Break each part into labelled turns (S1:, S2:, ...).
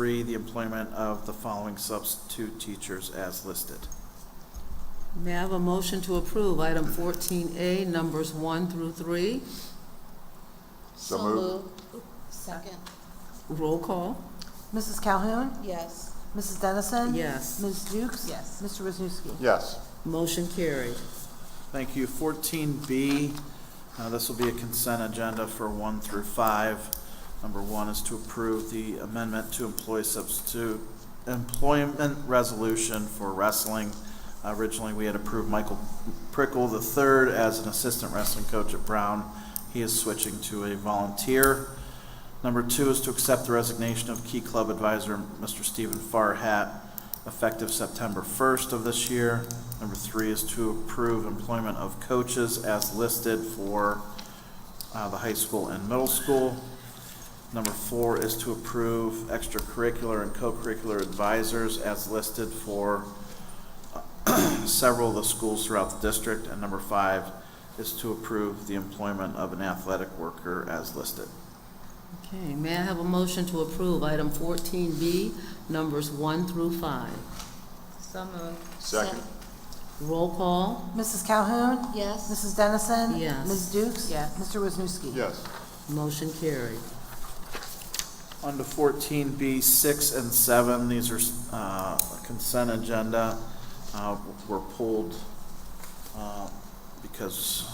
S1: three, the employment of the following substitute teachers as listed.
S2: May I have a motion to approve item 14A, numbers 1 through 3?
S3: So
S4: So
S3: moved.
S4: moved. Second,
S2: Roll call?
S5: Mrs. Calhoun?
S4: yes.
S5: Mrs. Dennison?
S2: Yes.
S5: Ms. Dukes?
S4: Yes.
S5: Mr. Wisniewski?
S3: Yes,
S2: Motion carried.
S1: Thank you. Fourteen B, uh, this will be a consent agenda for one through five. Number one is to approve the amendment to employ substitute employment resolution for wrestling. Originally, we had approved Michael Prickle III as an assistant wrestling coach at Brown. He is switching to a volunteer. Number two is to accept the resignation of Key Club Advisor, Mr. Stephen Farhat, effective September 1st of this year. Number three is to approve employment of coaches as listed for uh, the high school and middle school. Number four is to approve extracurricular and co-curricular advisors as listed for uh, several of the schools throughout the district. And number five is to approve the employment of an athletic worker as listed.
S2: Okay, may I have a motion to approve item 14B, numbers 1 through 5?
S4: So moved.
S3: Second.
S2: Roll call?
S5: Mrs. Calhoun?
S4: Yes.
S5: Mrs. Dennison?
S2: Yes.
S5: Ms. Dukes?
S4: Yes.
S5: Mr. Wisniewski?
S3: yes,
S2: Motion carried.
S1: On to fourteen B, six and seven, these are uh, consent agenda, uh, were pulled uh, because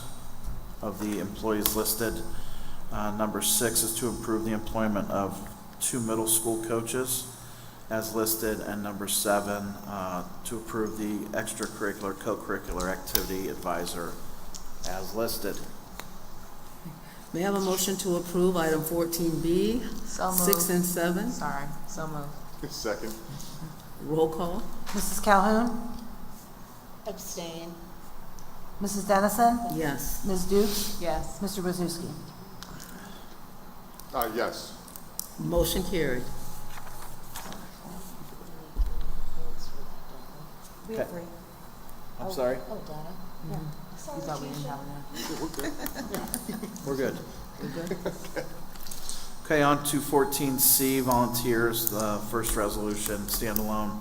S1: of the employees listed. Uh, Number six is to improve the employment of two middle school coaches as listed, and number seven, uh, to approve the extracurricular, co-curricular activity advisor as listed.
S2: May I have a motion to approve item 14B,
S4: So
S2: 6 and 7?
S4: Sorry, so moved.
S3: second,
S2: Roll call?
S5: Mrs. Calhoun?
S4: Abstain.
S5: Mrs. Dennison?
S2: Yes.
S5: Ms. Dukes?
S4: Yes.
S5: Mr. Wisniewski?
S3: uh, yes,
S2: Motion carried.
S4: We
S1: Okay.
S4: agree.
S1: I'm
S4: Oh,
S1: sorry,
S4: Oh, Donna? Yeah. Sorry, Keisha.
S1: we're good. Okay, on to fourteen C, volunteers, the first resolution, standalone,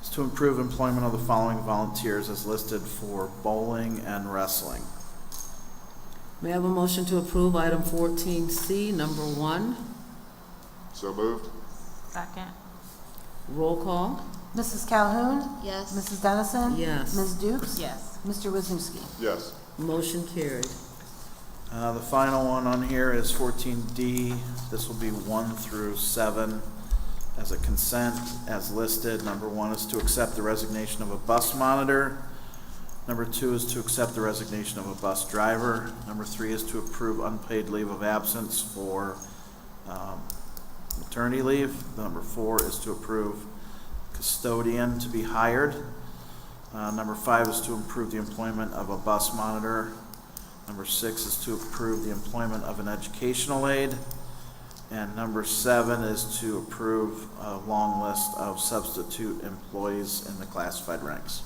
S1: is to improve employment of the following volunteers as listed for bowling and wrestling.
S2: May I have a motion to approve item 14C, number 1?
S3: so moved,
S4: Second.
S2: Roll call?
S5: Mrs. Calhoun?
S4: Yes.
S5: Mrs. Dennison?
S2: Yes.
S5: Ms. Dukes?
S4: Yes.
S5: Mr. Wisniewski?
S3: yes,
S2: Motion carried.
S1: Uh, the final one on here is fourteen D, this will be one through seven as a consent, as listed. Number one is to accept the resignation of a bus monitor. Number two is to accept the resignation of a bus driver. Number three is to approve unpaid leave of absence for um, maternity leave. Number four is to approve custodian to be hired. Uh, Number five is to improve the employment of a bus monitor. Number six is to approve the employment of an educational aide. And number seven is to approve a long list of substitute employees in the classified ranks.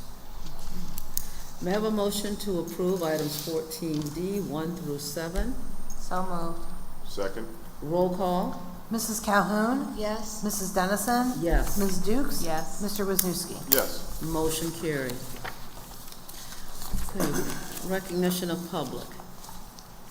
S2: May I have a motion to approve items 14D, 1 through 7?
S4: So moved.
S3: second,
S2: Roll call?
S5: Mrs. Calhoun?
S4: Yes.
S5: Mrs. Dennison?
S2: Yes.
S5: Ms. Dukes?
S4: Yes.
S5: Mr. Wisniewski?
S3: yes,
S2: Motion carried. Okay, Recognition of public.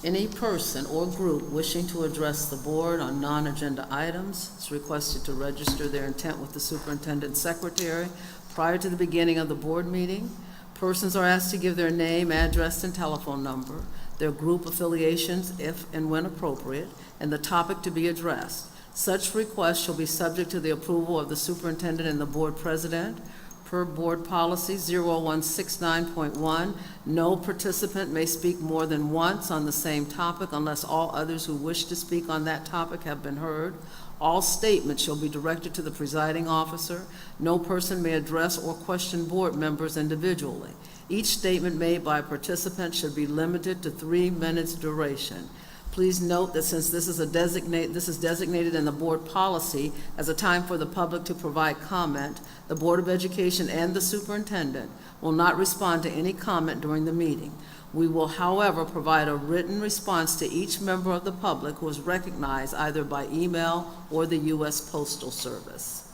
S2: Any person or group wishing to address the board on non-agenda items is requested to register their intent with the superintendent secretary prior to the beginning of the board meeting. Persons are asked to give their name, address, and telephone number, their group affiliations if and when appropriate, and the topic to be addressed. Such requests shall be subject to the approval of the superintendent and the board president. Per Board Policy 0169.1, no participant may speak more than once on the same topic unless all others who wish to speak on that topic have been heard. All statements shall be directed to the presiding officer. No person may address or question board members individually. Each statement made by a participant should be limited to three minutes duration. Please note that since this is a designate, this is designated in the board policy as a time for the public to provide comment, the Board of Education and the superintendent will not respond to any comment during the meeting. We will, however, provide a written response to each member of the public who is recognized either by email or the U.S. Postal Service.